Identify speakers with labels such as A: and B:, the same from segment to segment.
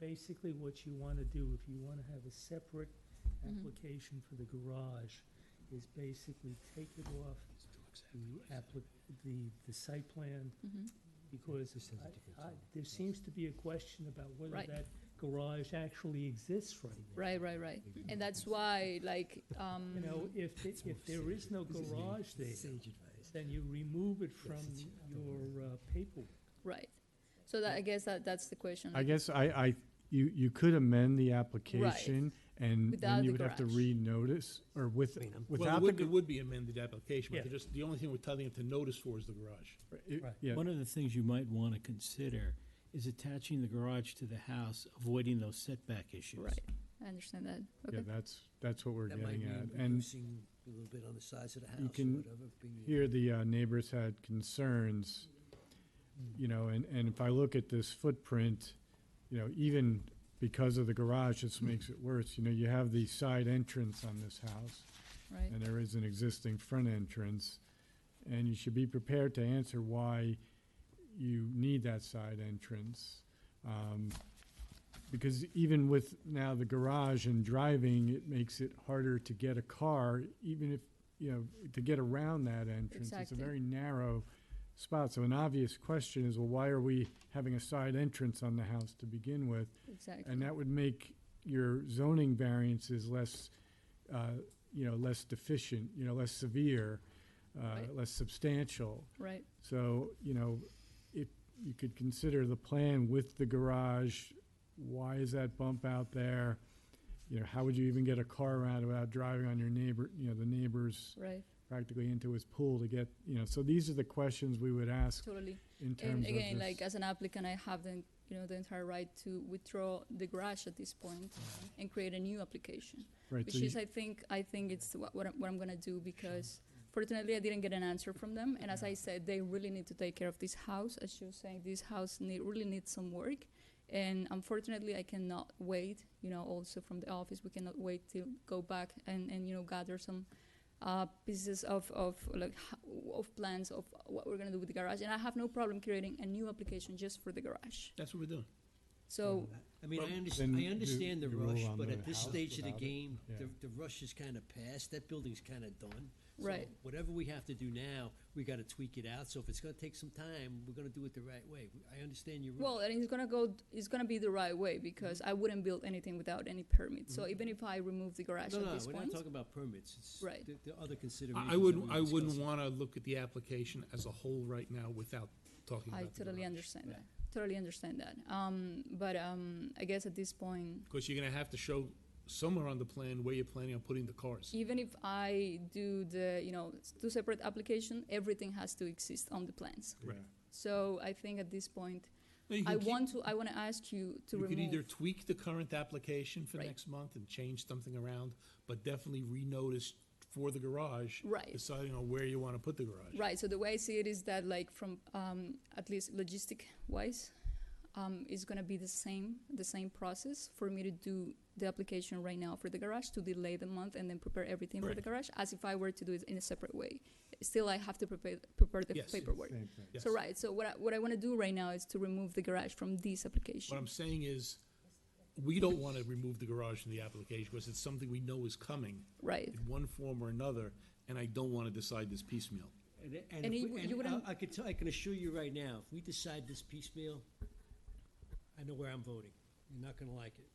A: basically what you want to do, if you want to have a separate
B: Mhm.
A: application for the garage, is basically take it off the applic, the, the site plan,
B: Mhm.
A: because
C: This has a
A: I-
C: different
A: I-
C: zone.
A: there seems to be a question about whether
B: Right.
A: that garage actually exists right now.
B: Right, right, right. And that's why, like, um,
A: You know, if, it- if there is no garage there,
C: Sage advice.
A: then you remove it from
C: it's-
A: your uh, paperwork.
B: right. So that, I guess that, that's the question.
D: I guess I, I, you, you could amend the application and
B: Without
D: then you
B: the
D: would have to
B: garage.
D: renotice or with,
C: I mean, I'm-
E: Well, it
D: without the.
E: would, it would be amended application,
A: Yeah.
E: but they're just, the only thing we're telling them to notice for is the garage.
D: gar- uh, it-
A: Right.
D: Yeah,
F: One of the things you might want to consider is attaching the garage to the house, avoiding those setback issues.
B: Right, I understand that.
D: yeah,
B: Okay,
D: that's, that's what we're
C: That might
D: getting
C: mean
D: at. And
C: reducing a little bit on the size of the house
D: you
C: or
D: can
C: whatever. being-
D: here the uh, neighbors had concerns,
C: Mm.
D: you know, and, and if I look at this footprint, you know, even because of the garage, this makes it worse. You know, you have the side entrance on this house.
B: right.
D: and there is an existing front entrance, and you should be prepared to answer why you need that side entrance. Um, Because even with now the garage and driving, it makes it harder to get a car, even if, you know, to get around that entrance. It's a
B: Exactly.
D: very narrow spot, so an obvious question is, well, why are we having a side entrance on the house to begin with?
B: Exactly.
D: And that would make your zoning variances less, uh, you know, less deficient, you know, less severe, uh,
B: Right.
D: less substantial.
B: Right,
D: So, you know, if you could consider the plan with the garage, why is that bump out there? You know, how would you even get a car around without driving on your neighbor, you know, the neighbor's
B: right,
D: practically into his pool to get, you know, so these are the questions we would ask
B: totally.
D: in terms of
B: And
D: this.
B: again, like, uh, as an applicant, I have the, you know, the entire right to withdraw the garage at this point and create a new application,
D: Right,
B: which
D: so you-
B: is, I think, I think it's what, what I'm, what I'm gonna do because fortunately I didn't get an answer from them. And as I said, they really need to take care of this house. As you were saying, this house need, really needs some work. And unfortunately, I cannot wait, you know, also from the office, we cannot wait to go back and, and you know, gather some uh, pieces of, of like ho- of plans of what we're gonna do with the garage. And I have no problem creating a new application just for the garage.
E: That's what we're doing.
B: So,
C: I mean, I
E: Well,
D: then
C: understand, I
D: you-
C: understand the
D: you roll
C: rush,
D: on
C: but
D: the
C: at this
D: house
C: stage of the
D: without it.
C: game, the,
D: Yeah.
C: the rush is kinda past, that building's kinda done. So
B: Right.
C: Whatever we have to do now, we gotta tweak it out, so if it's gonna take some time, we're gonna do it the right way. I understand your rush.
B: well, and it's gonna go, it's gonna be the right way because I wouldn't build anything without any permit. So even if I remove the garage
C: No,
B: at
C: no,
B: this
C: we're not
B: point,
C: talking about permits, it's
B: Right.
C: the, the other considerations.
E: I, I
C: that
E: wouldn't,
C: we
E: I wouldn't
C: discussed.
E: wanna look at the application as a whole right now without talking
B: I
E: about the
B: totally
E: garage.
B: understand that. Totally understand that. Um, but um, I guess at this point,
E: Cause you're gonna have to show somewhere on the plan where you're planning on putting the cars.
B: even if I do the, you know, s- two separate application, everything has to exist on the plans.
E: Right.
B: So I think at this point,
E: No, you can
B: I
E: keep-
B: want to, I want to ask you to
E: You could either
B: remove.
E: tweak the current application for
B: Right.
E: next month and change something around, but definitely renotice for the garage.
B: Right.
E: Deciding on where you wanna put the garage.
B: Right, so the way I see it is that like from, um, at least logistic wise, um, it's gonna be the same, the same process for me to do the application right now for the garage, to delay the month and then prepare everything for
E: Right.
B: the garage, as if I were to do it in a separate way. Still, I have to prepare, prepare the
E: Yes.
B: paperwork.
D: Same thing.
E: Yes.
B: So right, so what I, what I want to do right now is to remove the garage from this application.
E: What I'm saying is, we don't want to remove the garage from the application because it's something we know is coming
B: right.
E: in one form or another, and I don't want to decide this piecemeal.
C: And, and,
B: And
C: if
B: he-
C: we-
B: you
C: and
B: wouldn't-
C: I, I could tell, I can assure you right now, if we decide this piecemeal, I know where I'm voting. You're not gonna like it.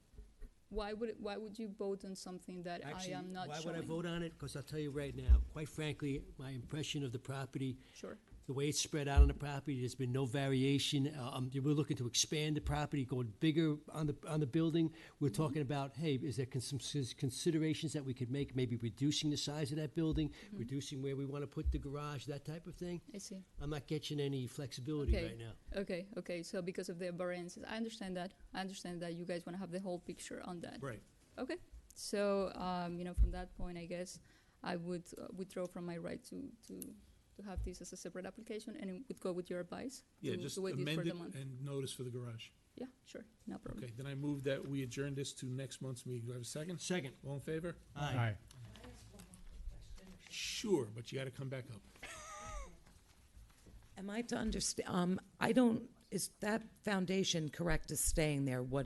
B: Why would why would you vote on something that
C: Actually,
B: I am not
C: why
B: showing?
C: would I vote on it? Because I'll tell you right now, quite frankly, my impression of the property,
B: Sure.
C: the way it's spread out on the property, there's been no variation. Uh, Um, we're looking to expand the property, going bigger on the, on the building. We're talking about, hey, is there con- some s- considerations that we could make, maybe reducing the size of that building, reducing where we want to put the garage, that type of thing?
B: I see.
C: I'm not catching any flexibility
B: Okay.
C: right now.
B: Okay, okay. So because of the variances, I understand that. I understand that you guys want to have the whole picture on that.
E: Right.
B: Okay. So um, you know, from that point, I guess I would uh, withdraw from my right to to to have this as a separate application, and it would go with your advice.
E: Yeah,
B: to,
E: just
B: to wait this
E: amend
B: for
E: it
B: the month.
E: and notice for the garage.
B: Yeah, sure, no problem.
E: Okay, then I move that we adjourn this to next month's meeting. Do I have a second?
C: Second.
E: All in favor?
D: Aye.
E: Sure, but you got to come back up.
G: Am I to understand, um, I don't, is that foundation correct is staying there? What